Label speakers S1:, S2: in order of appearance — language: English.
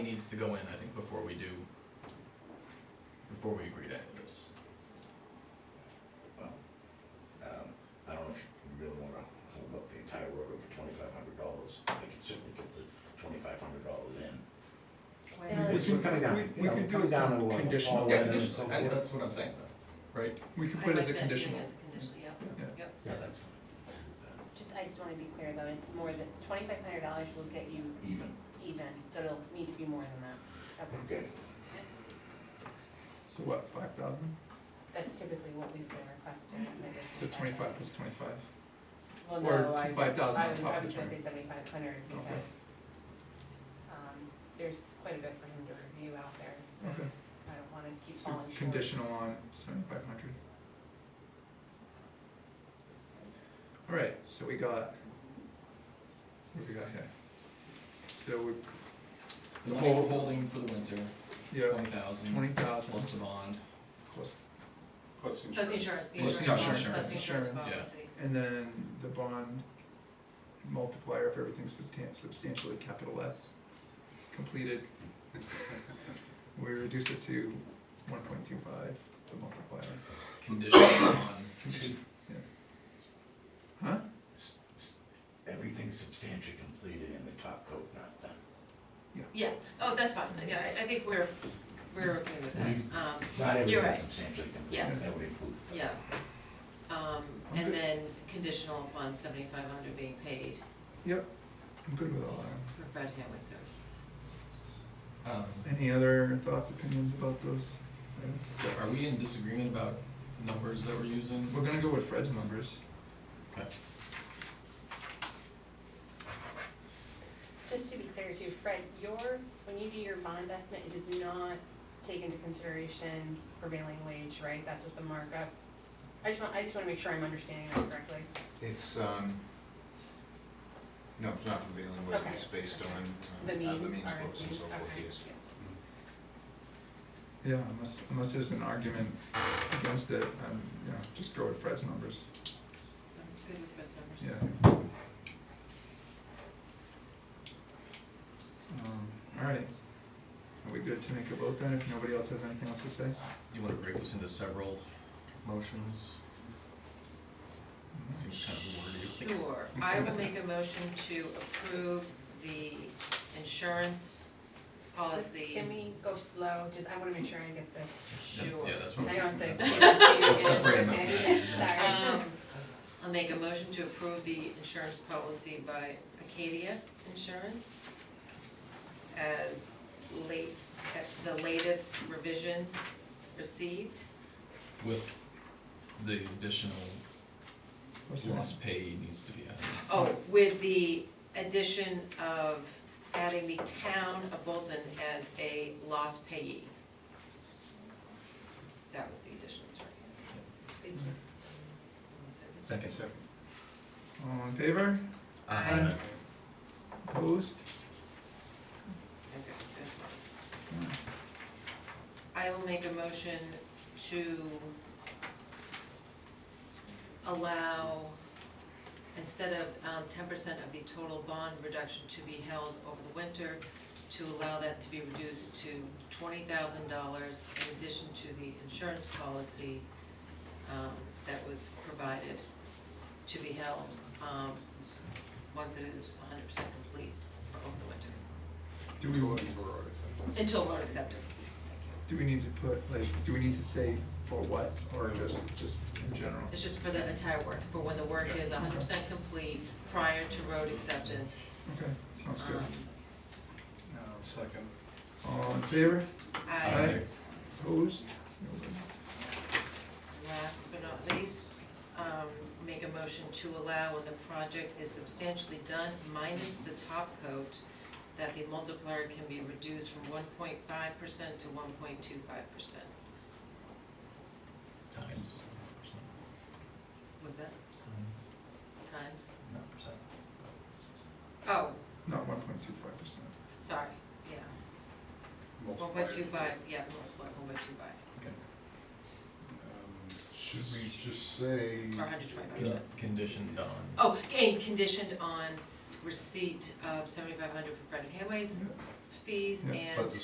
S1: needs to go in, I think, before we do, before we agree to any of this.
S2: Well, um, I don't know if you really wanna hold up the entire road over twenty-five hundred dollars, they could certainly get the twenty-five hundred dollars in.
S3: And
S4: Yeah,
S3: our-
S2: It's been coming down,
S4: we-
S2: you
S4: we
S2: know,
S4: could do
S2: coming
S4: it
S2: down
S4: con-
S2: over all
S4: conditional.
S2: weather
S1: Yeah,
S2: and
S1: condition-
S2: so
S1: and
S2: forth.
S1: that's what I'm saying, though, right?
S4: We could
S3: I
S4: put
S3: like
S4: as a
S3: that, doing
S4: conditional.
S3: as a conditional, yeah.
S1: Yeah.
S3: Yep.
S2: Yeah, that's fine,
S5: Just, I just wanna be clear though, it's more than, twenty-five hundred dollars will get you
S2: even,
S5: even, so it'll need to be more than that. Okay.
S2: okay,
S4: So what, five thousand?
S5: That's typically what we've been requesting, is maybe.
S4: So twenty-five plus twenty-five.
S5: Well,
S4: or
S5: no, I, I
S4: 5,000 on
S5: was,
S4: top
S5: I
S4: of
S5: was
S4: the
S5: gonna say seventy-five hundred
S4: Okay.
S5: because, um, there's quite a bit for him to review out there, so
S4: Okay.
S5: I don't wanna keep
S4: So
S5: falling short.
S4: conditional on seventy-five hundred. All right, so we got, what do we got here? So we,
S1: The
S4: Twenty-
S1: whole holding for the winter,
S4: yeah,
S1: twenty thousand.
S4: twenty thousand
S1: Plus the bond,
S4: plus,
S6: Plus insurance.
S3: Plus the insurance, the
S1: Plus
S3: insurance,
S1: the
S3: policy,
S1: insurance.
S3: plus the insurance
S4: Insurance,
S1: yeah.
S3: policy.
S4: and then the bond multiplier if everything's substan- substantially capital S completed. We reduce it to one point two five, the multiplier.
S1: conditional on,
S4: Yeah. Huh?
S2: S- s- everything's substantially completed and the top coat not done.
S3: Yeah, oh, that's fine, yeah, I, I think we're, we're okay with
S2: Mhm.
S3: that, um,
S2: Not
S3: You're
S2: everything's
S3: right.
S2: substantially completed,
S3: Yes.
S2: that would include the top.
S3: yeah. Um, and
S4: Okay.
S3: then conditional upon seventy-five hundred being paid
S4: Yep, I'm good with all that.
S3: for Fred Hanley services.
S1: um,
S4: Any other thoughts, opinions about those items?
S1: so are we in disagreement about numbers that we're using?
S4: We're gonna go with Fred's numbers.
S1: Okay.
S5: Just to be clear too, Fred, your, when you do your bond estimate, it does not take into consideration prevailing wage, right? That's what the markup, I just want, I just wanna make sure I'm understanding that correctly.
S6: It's, um, no, it's not prevailing wage,
S5: Okay.
S6: it's based on,
S5: The
S6: um, how the
S5: means,
S6: means
S5: are
S6: books and
S5: means,
S6: so forth,
S5: okay,
S6: yes.
S5: yeah.
S4: Yeah, unless, unless there's an argument against it, um, you know, just go with Fred's numbers,
S3: I'm good with Fred's numbers.
S4: yeah. Um, alright, are we good to make a vote then, if nobody else has anything else to say?
S1: You wanna break this into several motions? Seems kind of wordy.
S3: Sure, I will make a motion to approve the insurance
S5: Just-
S3: policy.
S5: Can we go slow, just, I wanna make sure I get this,
S1: Yeah,
S3: Sure.
S1: Yeah, that's what
S5: I
S1: I'm
S5: don't
S1: saying.
S5: think.
S1: That's-
S5: Let's
S1: Let's separate them up.
S5: Sorry.
S3: Um, I'll make a motion to approve the insurance policy by Acadia Insurance as late, at the latest revision received.
S1: With the additional
S4: What's that?
S1: lost pay needs to be added.
S3: Oh, with the addition of adding the town of Bolton as a lost payee. That was the addition, sorry.
S5: Thank you.
S1: Second.
S4: All in favor?
S1: Uh,
S3: Aye.
S4: Opposed?
S3: Okay, that's fine.
S4: No.
S3: I will make a motion to allow, instead of um, ten percent of the total bond reduction to be held over the winter, to allow that to be reduced to twenty thousand dollars in addition to the insurance policy um, that was provided to be held, um, once it is hundred percent complete for over the winter,
S4: Do we,
S6: Two lines were already sent.
S3: until road acceptance. Thank you.
S4: do we need to put, like, do we need to say for what, or just, just in general?
S3: It's just for the entire work, for when the work is hundred percent complete prior to road acceptance.
S4: Okay, sounds good.
S3: Um,
S6: No, second.
S4: All in favor?
S3: I,
S4: Opposed? Nobody.
S3: last but not least, um, make a motion to allow when the project is substantially done, minus the top coat, that the multiplier can be reduced from one point five percent to one point two five percent.
S1: Times.
S3: What's that,
S1: Times.
S3: times?
S1: Not percent.
S3: Oh,
S4: Not one point two five percent.
S3: sorry, yeah, one point two five, yeah, the multiplier, one point two five,
S6: Should we just say?
S3: or hundred twenty-five percent.
S1: Con- Conditioned on,
S3: Oh, and conditioned on receipt of seventy-five hundred for Fred Hamway's
S7: fees
S8: Yeah,
S7: and.
S3: but the